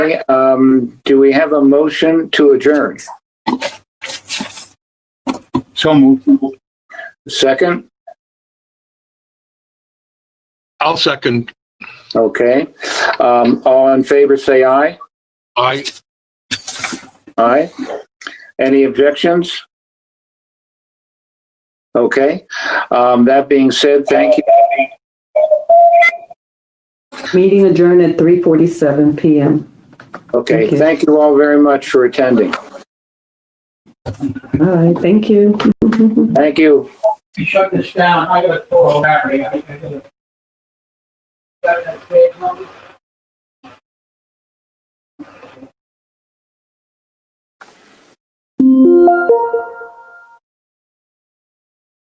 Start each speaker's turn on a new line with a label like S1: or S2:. S1: Um, do we have a motion to adjourn?
S2: So moved.
S1: Second?
S3: I'll second.
S1: Okay. Um, all in favor, say aye.
S3: I,
S1: Aye. Any objections? Okay. Um, that being said, thank you.
S4: Meeting adjourned at 3:47 PM.
S1: Okay,
S4: Thank you.
S1: thank you all very much for attending.
S4: All right, thank you.
S1: Thank you.
S5: you shut this down, I gotta call Larry. I- I gotta- Got that big number?